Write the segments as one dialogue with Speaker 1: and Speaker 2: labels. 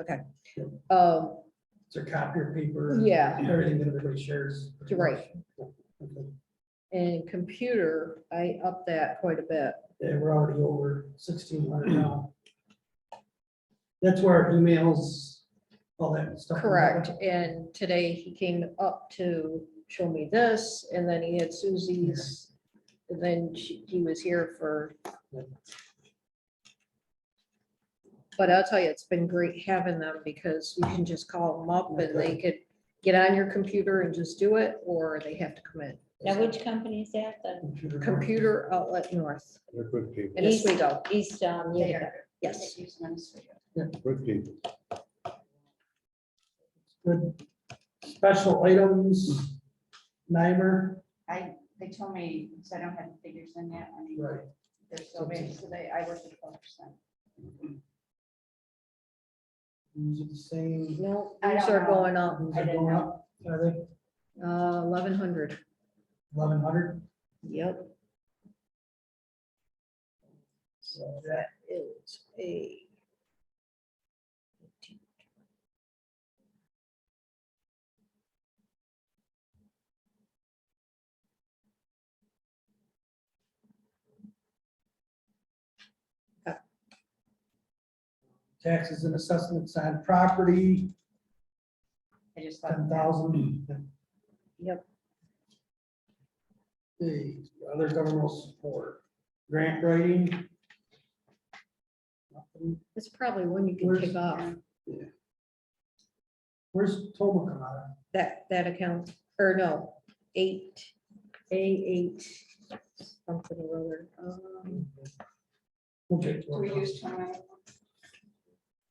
Speaker 1: Okay. Um,
Speaker 2: It's a copier paper.
Speaker 1: Yeah.
Speaker 2: Everything that everybody shares.
Speaker 1: You're right.
Speaker 2: Okay.
Speaker 1: and computer, I upped that quite a bit.
Speaker 2: Yeah, we're already over sixteen hundred now. That's where our emails, all that stuff.
Speaker 1: Correct, and today he came up to show me this, and then he had Suzie's, and then she, he was here for. But I'll tell you, it's been great having them, because you can just call them up and they could get on your computer and just do it, or they have to come in.
Speaker 3: Now, which company is that? The
Speaker 2: Computer.
Speaker 1: Computer Outlet North
Speaker 4: They're good people,
Speaker 1: in
Speaker 3: East-
Speaker 1: Oswego,
Speaker 3: East, um, Utica.
Speaker 1: yes.
Speaker 4: good people.
Speaker 2: Good. Special items, NYMER.
Speaker 5: I, they told me, so I don't have the figures in yet, I mean,
Speaker 2: Right.
Speaker 5: they're still waiting, so they, I work at twelve percent.
Speaker 2: These are the same.
Speaker 1: No,
Speaker 5: I
Speaker 1: these
Speaker 5: don't
Speaker 1: are
Speaker 5: know.
Speaker 1: going up,
Speaker 2: These
Speaker 5: I
Speaker 2: are
Speaker 5: didn't
Speaker 2: going
Speaker 5: know.
Speaker 2: up, Are they
Speaker 1: uh, eleven hundred,
Speaker 2: eleven hundred?
Speaker 1: yep.
Speaker 2: So
Speaker 1: That is a.
Speaker 2: Taxes and assessments on property,
Speaker 5: I just thought.
Speaker 2: ten
Speaker 3: uh,
Speaker 2: thousand.
Speaker 3: Hmm.
Speaker 1: Yep.
Speaker 2: other governmental support, grant writing. Nothing.
Speaker 1: It's probably one you can
Speaker 2: Where's-
Speaker 1: take off,
Speaker 2: Where's Toma come out of?
Speaker 1: that, that account, or no, eight, A eight. Something or other, um,
Speaker 2: Okay.
Speaker 5: Do we use twenty?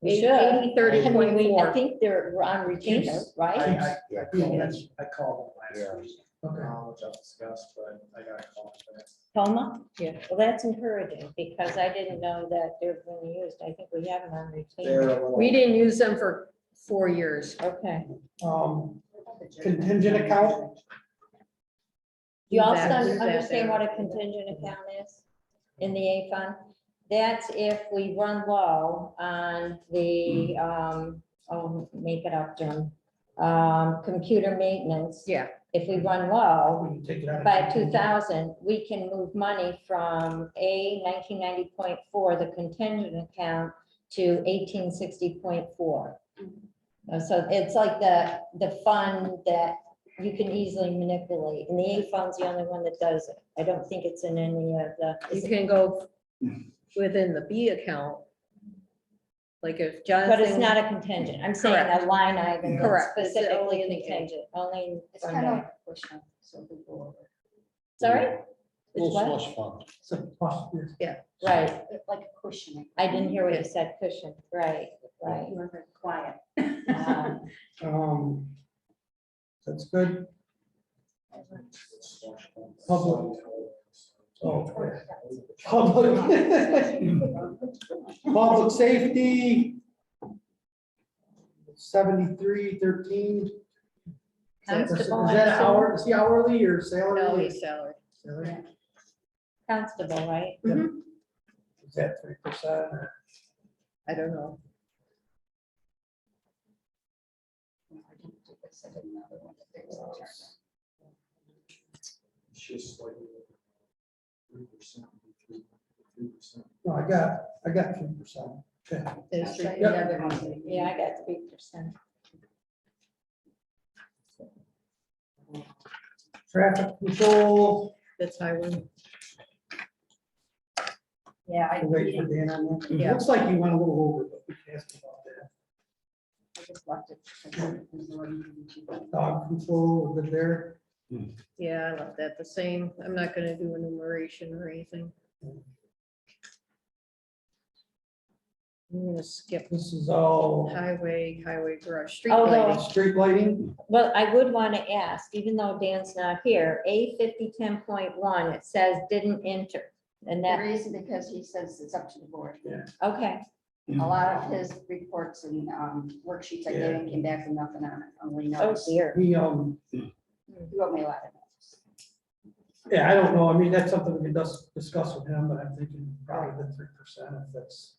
Speaker 3: We
Speaker 1: eight-
Speaker 3: should.
Speaker 1: eighty, thirty,
Speaker 3: I mean, we- I
Speaker 1: twenty-four.
Speaker 3: think they're on retainer, right?
Speaker 2: I-
Speaker 4: Yeah,
Speaker 2: Yeah, that's-
Speaker 6: I called them
Speaker 4: Yeah.
Speaker 6: last week,
Speaker 2: Okay.
Speaker 6: um, which I'll discuss, but I got a call for that.
Speaker 3: Toma?
Speaker 1: Yeah.
Speaker 3: Well, that's encouraging because I didn't know that they're being used. I think we have them on
Speaker 6: They're
Speaker 3: retainer.
Speaker 6: a little-
Speaker 1: We didn't use them for four years.
Speaker 3: Okay.
Speaker 2: Um, Contingent account?
Speaker 3: You
Speaker 1: Use
Speaker 3: also
Speaker 1: that- use that
Speaker 3: understand
Speaker 1: there.
Speaker 3: what a contingent account is in the A fund? That's if we run low on the, um, oh, make it up, Jim. Um, computer maintenance.
Speaker 1: Yeah,
Speaker 3: If we run low,
Speaker 2: when you take it out. of
Speaker 3: by two thousand, we can move money from A nineteen ninety point four, the contingent account, to eighteen sixty point four.
Speaker 1: Mm-hmm.
Speaker 3: So it's like the, the fund that you can easily manipulate, and the A fund's the only one that does it. I don't think it's in any of the.
Speaker 1: you can go within the B account. Like if Jonathan.
Speaker 3: But it's not a contingent. I'm saying a line item that's
Speaker 1: Correct. It's
Speaker 3: specifically
Speaker 1: only in the A.
Speaker 3: contingent, only. in
Speaker 5: It's
Speaker 3: fund
Speaker 5: kind of
Speaker 3: A.
Speaker 5: like a question, so we go over.
Speaker 3: Sorry? It's
Speaker 4: Little
Speaker 3: what?
Speaker 4: slush fund.
Speaker 2: It's a plus, yes.
Speaker 3: Right.
Speaker 5: It's Like a cushion.
Speaker 3: I didn't hear what you said, cushion. Right, right.
Speaker 5: You were very quiet.
Speaker 3: Um,
Speaker 2: Um, That's good. Public. Oh, Public. Public safety. Seventy-three thirteen. Is
Speaker 3: Constable,
Speaker 2: that
Speaker 3: I'm
Speaker 2: hour, is he hourly or salary?
Speaker 1: No, he's salary.
Speaker 2: Salary?
Speaker 3: Constable, right?
Speaker 2: Is that three percent?
Speaker 1: I don't know.
Speaker 6: It's just like three percent, three percent.
Speaker 2: No, I got, I got three percent.
Speaker 1: There's three-
Speaker 2: Yep.
Speaker 1: yeah.
Speaker 3: Yeah, I got three percent.
Speaker 2: Traffic control,
Speaker 1: That's how I would.
Speaker 5: Yeah, I,
Speaker 2: I'll wait for Dan on that.
Speaker 1: Yeah.
Speaker 2: Looks like you went a little over, but we can ask about that.
Speaker 5: I just left it. It's
Speaker 2: Dog control, we're good there.
Speaker 1: Yeah, I left that the same. I'm not gonna do enumeration or anything. I'm gonna skip
Speaker 2: This is all
Speaker 1: highway, highway garage, street
Speaker 3: Oh, no.
Speaker 1: lighting.
Speaker 2: street lighting.
Speaker 3: Well, I would want to ask, even though Dan's not here, A fifty ten point one, it says didn't enter. And
Speaker 5: The
Speaker 3: that,
Speaker 5: reason because he says it's up to the board.
Speaker 3: okay,
Speaker 5: A lot of his reports and um, worksheets I gave him came back with nothing on it, only
Speaker 3: oh
Speaker 5: notes. He
Speaker 3: dear.
Speaker 2: He, um,
Speaker 5: wrote me a lot of notes.
Speaker 2: yeah, I don't know. I mean, that's something we can dis- discuss with him, but I'm thinking probably the three percent if that's.